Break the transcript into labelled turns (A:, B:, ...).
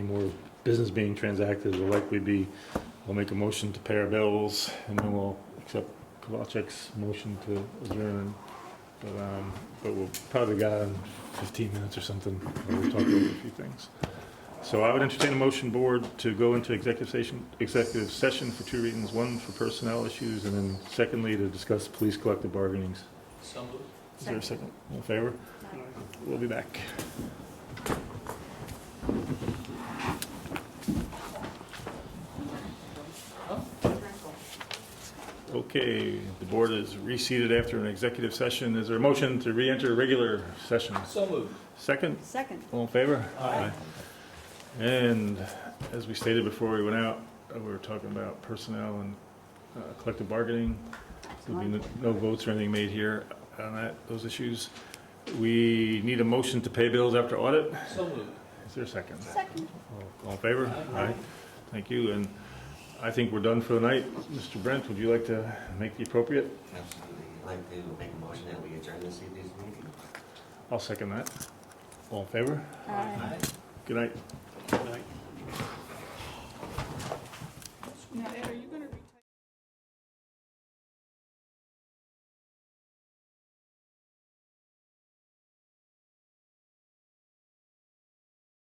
A: more business being transacted will likely be, we'll make a motion to pay our bills, and then we'll accept Kovacek's motion to adjourn. But, um, but we'll probably got in fifteen minutes or something, and we'll talk over a few things. So I would entertain a motion, board, to go into executive session, executive session for two reasons. One, for personnel issues, and then secondly, to discuss police collective bargainings.
B: Some
A: Is there a second? All in favor? We'll be back. Okay, the board is reseated after an executive session. Is there a motion to re-enter regular session?
B: So moved.
A: Second,
C: Second.
A: all in favor? And as we stated before we went out, uh, we were talking about personnel and uh, collective bargaining. There'll be no- no votes or anything made here on that, those issues. We need a motion to pay bills after audit.
B: So moved.
A: Is there a second?
C: Second.
A: All- All in favor?
B: Aye.
A: Thank you, and I think we're done for the night. Mr. Brent, would you like to make the appropriate?
D: Absolutely. I'd like to make a motion that we adjourn this evening's meeting.
A: I'll second that. All in favor?
C: Aye.
A: Good night.